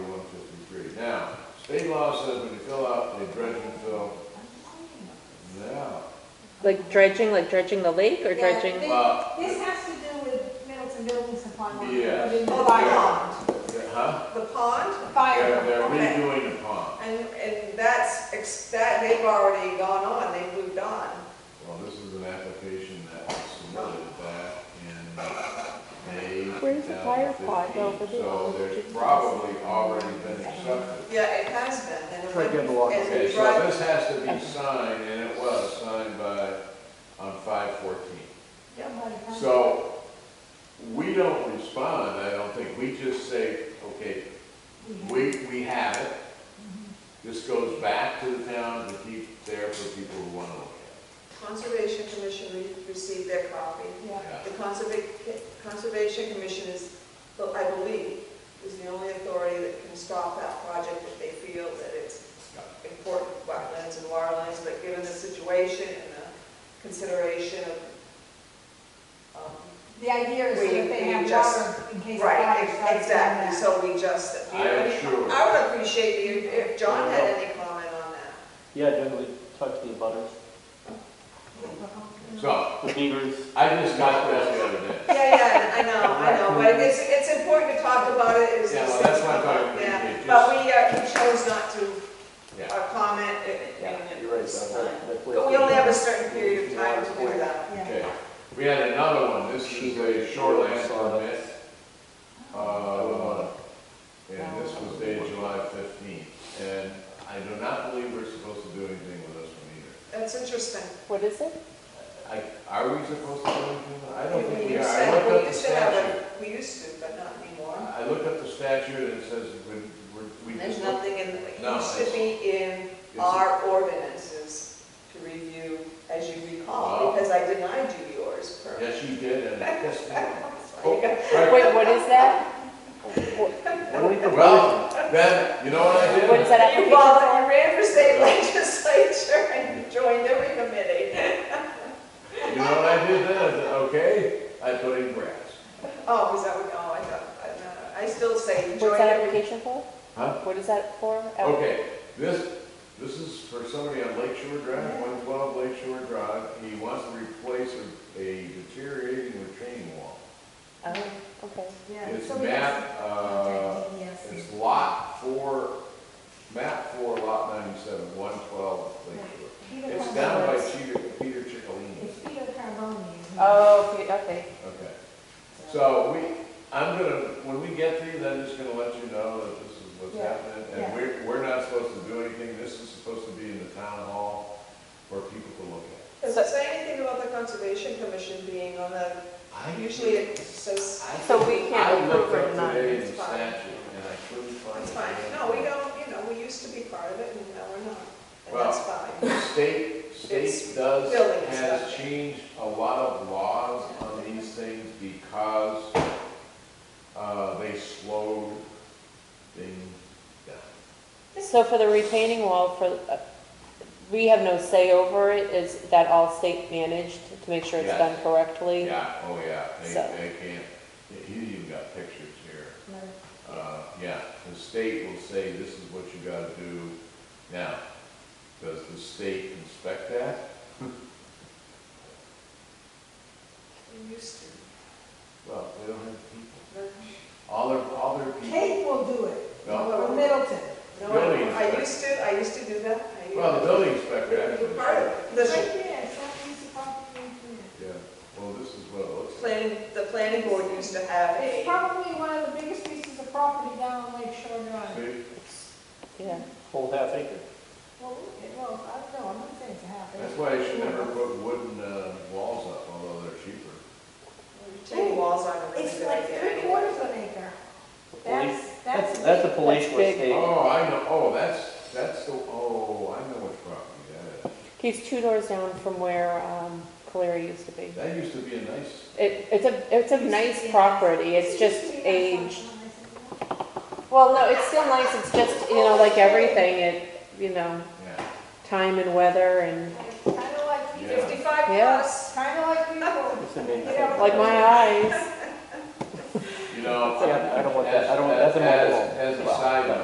State law says when you fill out a dredge and fill, yeah. Like dredging, like dredging the lake or Yeah, dredging? thi- Wow. This has to do with Middleton Building Supply. Market. Uh, Yeah. They Oh, moved by it. pond, Yeah, Huh? the pond, They're, Fire. they're Okay. redoing the pond. and, and that's, ex- that, they've already gone on, they moved on. Well, this is an application that was submitted back in May. Where's the fire pot though 2015, for the- So there's probably already been accepted. Yeah, it has been, and. it Try to get the went- water. and Okay, we so brought- this has to be signed, and it was signed by, on five fourteen. Yeah, by the time- So, we don't respond, I don't think, we just say, okay, we, we have it. This goes back to the town to keep there for people who wanna look Conservation Commission re- received their copy. Yeah. at it. The Conserva- Conservation Commission is, well, I believe, is the only authority that can stop that project if they feel that it's important wetlands and waterlands, but given the situation and the consideration of, um, The idea is so We- that they we have just- water in case the Right, fire ex- starts. exactly, so we just, I am sure. I would appreciate you, if John had any comment on that. Yeah, generally talk to the butters, Yeah. So, the neighbors. I just got that the other day. Yeah, yeah, I know, I know, but it's, it's important to talk about it, it's. Yeah, well, that's what I'm talking about. Yeah, It but we, uh, we chose not to Yeah. uh, comment, uh, and You're right, it's that's fine. right. That's But we only have a certain period of time to do that. Yeah. Okay, we had another one, this is a shoreline permit. Uh, And this was dated July fifteenth, and I do not believe we're supposed to do anything with this one That's interesting. What is it? either. I, are we supposed to do anything? with it? I don't think We we are, used I to, looked we up the used to have, statute. a- we used to, but not anymore. I looked up the statute and it says we, we- we There's just look. nothing in, it No, used to it's- be in it's- our ordinances to review, as you recall, Wow. because I denied you yours. per- Yes, you did, and yes, So you got- right. Wait, what is that? Wh- Well, then, you know what I did? What is that You application bothered, you for? ran for state legislature and you joined every committee. You know what I did then? I said, okay, I put in grass. Oh, was that, what- oh, I thought, I don't know. I still say you What's joined that every. application for? Huh? What is that for? Oh, Oh. Okay, this, this is for somebody on Lake Shore Drive, one twelve Lake Shore Drive. He wants to replace a- a deteriorating retaining wall. Oh, okay. Yeah. It's So we have map, to uh, contact DES. it's lot four, map four, lot ninety-seven, one twelve Lake Shore. Peter It's Carbone- down by E Peter, Peter Chicalini. It's Peter Carbone. isn't it? Oh, okay, okay. Okay. So we, I'm gonna, when we get these, I'm just gonna let you know that this is what's Yeah, happening. And yeah. we're, we're not supposed to do anything. This is supposed to be in the town hall for people to look at. Does it say anything about the conservation commission being on the, I usually it says, I- So we can't I looked approve or up not, today in it's the fine. statute and I couldn't find. it's it. fine. No, we don't, you know, we used to be part of it and now we're not. And Well, that's fine. State, state It's does, building has stuff. changed a lot of laws on these things because, uh, they slowed things down. So for the retaining wall, for, uh, we have no say over it, is that all state managed to make sure it's Yeah. done correctly? Yeah, oh yeah, they, So- they can't, he's even got pictures here. Uh, yeah, the state will say, this is what you gotta do now. Does the state inspect that? We used to. Well, they don't have people. All their, all their people. Kate will do it, No. or Middleton. No, Really? I used to, I used to do that. I used- Well, the building inspector We actually. were part said- of it. Right The there, it's not easy to park in there. Yeah, well, this is what it looks like. planning, the planning board used to have It's a, probably one of the biggest pieces of property down on Lake Shore Drive. See, Yeah. Whole half acre. Well, it- well, I don't know, I'm not saying it's a half that's acre. why you should never put wooden, uh, walls up, although they're cheaper. retaining walls on a really It's good like idea. three anyway. quarters of an acre. That's, Police- that's. That's a police That's big. state. Oh, I know, oh, that's, that's the, oh, I know which property that is. He's two doors down from where, um, Caleri used to be. That used to be a nice It, it's a, it's a nice property, it's just aged. It's Well, no, it's still nice, it's just, you know, like everything, it, you know, Yeah, time and weather and, Kind of like people, Yeah. Fifty-five Yeah. plus. kind of like people. It's a major- You know, like my eyes. you know. Yeah, I don't want that, I don't want- that's a as- mobile home. As as a Well, side but-